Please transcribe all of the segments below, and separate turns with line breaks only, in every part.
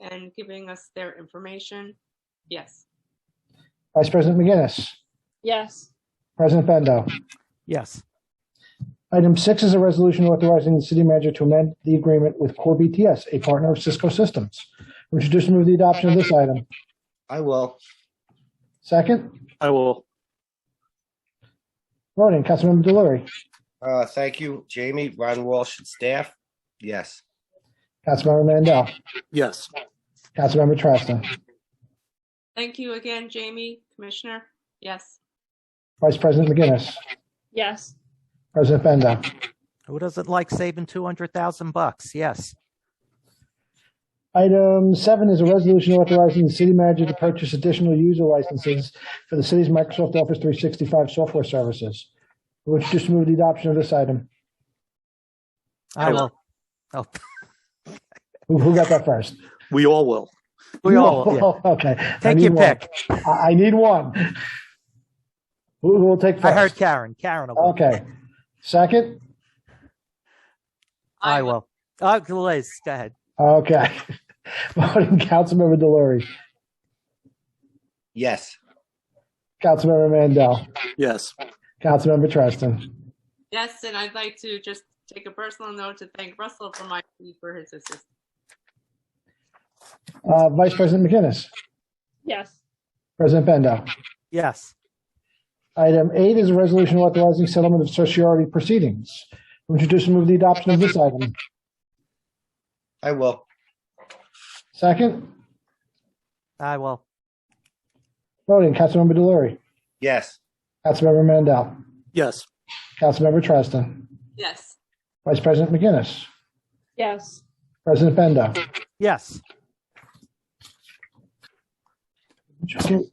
and giving us their information? Yes.
Vice President McGinnis,
Yes.
President Bendo.
Yes.
Item six is a resolution authorizing the city manager to amend the agreement with Core BTS, a partner of Cisco Systems. Would you just move the adoption of this item?
I will.
Second,
I will.
voting, Councilmember Delory,
Uh, thank you, Jamie, Ron Walsh, and staff. Yes.
Councilmember Mandel,
Yes.
Councilmember Trastan,
Thank you again, Jamie, Commissioner. Yes.
Vice President McGinnis,
Yes.
President Bendo.
Who doesn't like saving 200,000 bucks? Yes.
Item seven is a resolution authorizing the city manager to purchase additional user licenses for the city's Microsoft Office 365 software services. Would you just move the adoption of this item?
I
I will.
will. Oh,
Who who got that first?
we all will. We all will. yeah.
Okay. I
Take
need
your
one.
pick.
I, I need one. Who who will take first?
I heard Karen. Karen will.
Okay. Second?
I will. Oh, Liz, go ahead.
Okay. Voting Councilmember Delory,
Yes.
Councilmember Mandel,
Yes.
Councilmember Treston,
Yes, and I'd like to just take a personal note to thank Russell for my, for his assistance.
uh, Vice President McGinnis,
Yes.
President Bendo.
Yes.
Item eight is a resolution authorizing settlement of certiorari proceedings. Would you just move the adoption of this item?
I will.
Second?
I will.
Voting Councilmember Delory,
Yes.
Councilmember Mandel,
Yes.
Councilmember Treston,
Yes.
Vice President McGinnis,
Yes.
President Bendo.
Yes.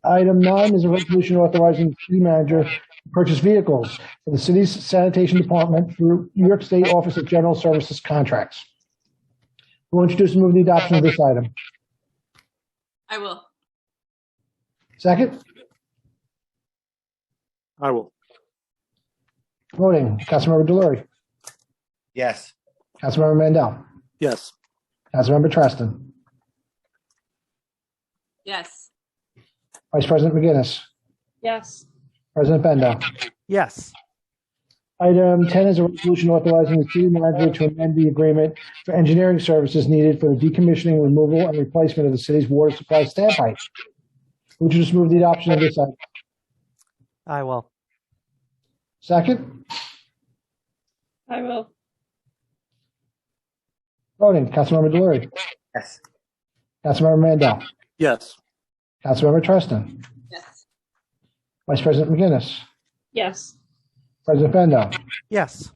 Item nine is a resolution authorizing the city manager to purchase vehicles for the city's sanitation department through New York State Office of General Services contracts. Who will introduce and move the adoption of this item?
I will.
Second,
I will.
voting, Councilmember Delory,
Yes.
Councilmember Mandel,
Yes.
Councilmember Treston,
Yes.
Vice President McGinnis,
Yes.
President Bendo.
Yes.
Item 10 is a resolution authorizing the city manager to amend the agreement for engineering services needed for the decommissioning, removal, and replacement of the city's water supply standpipe. Would you just move the adoption of this item?
I will.
Second,
I will.
voting, Councilmember Delory,
Yes.
Councilmember Mandel,
Yes.
Councilmember Treston,
Yes.
Vice President McGinnis,
Yes.
President Bendo.
Yes.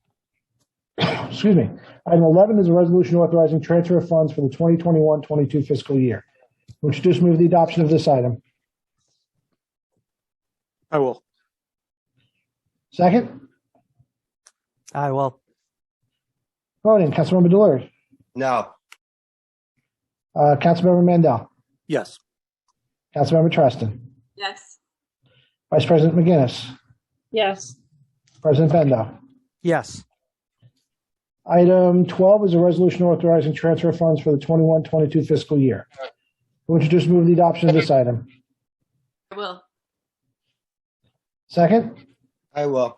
Excuse me. Item 11 is a resolution authorizing transfer of funds for the 2021-22 fiscal year. Would you just move the adoption of this item?
I will.
Second,
I will.
voting, Councilmember Delory,
No.
uh, Councilmember Mandel,
Yes.
Councilmember Treston,
Yes.
Vice President McGinnis,
Yes.
President Bendo.
Yes.
Item 12 is a resolution authorizing transfer of funds for the 21-22 fiscal year. Would you just move the adoption of this item?
I will.
Second,
I will.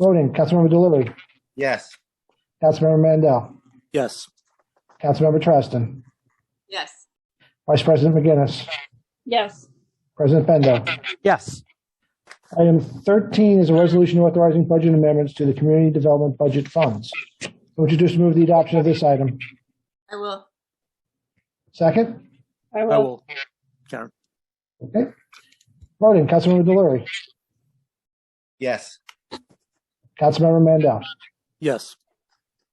voting, Councilmember Delory,
Yes.
Councilmember Mandel,
Yes.
Councilmember Treston,
Yes.
Vice President McGinnis,
Yes.
President Bendo.
Yes.
Item 13 is a resolution authorizing budget amendments to the community development budget funds. Would you just move the adoption of this item?
I will.
Second,
I
I
will.
will. Karen.
okay. Voting, Councilmember Delory,
Yes.
Councilmember Mandel,
Yes.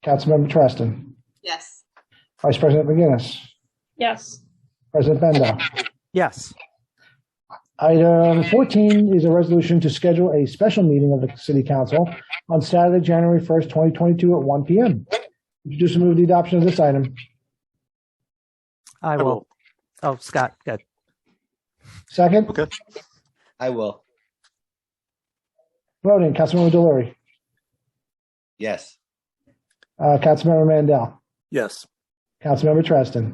Councilmember Treston,
Yes.
Vice President McGinnis.
Yes.
President Bendo.
Yes.
Item 14 is a resolution to schedule a special meeting of the City Council on Saturday, January 1st, 2022 at 1 p.m. Introduce and move the adoption of this item.
I will. Oh, Scott, good.
Second,
Okay.
I will.
voting, Councilmember Delory,
Yes.
uh, Councilmember Mandel,
Yes.
Councilmember Treston,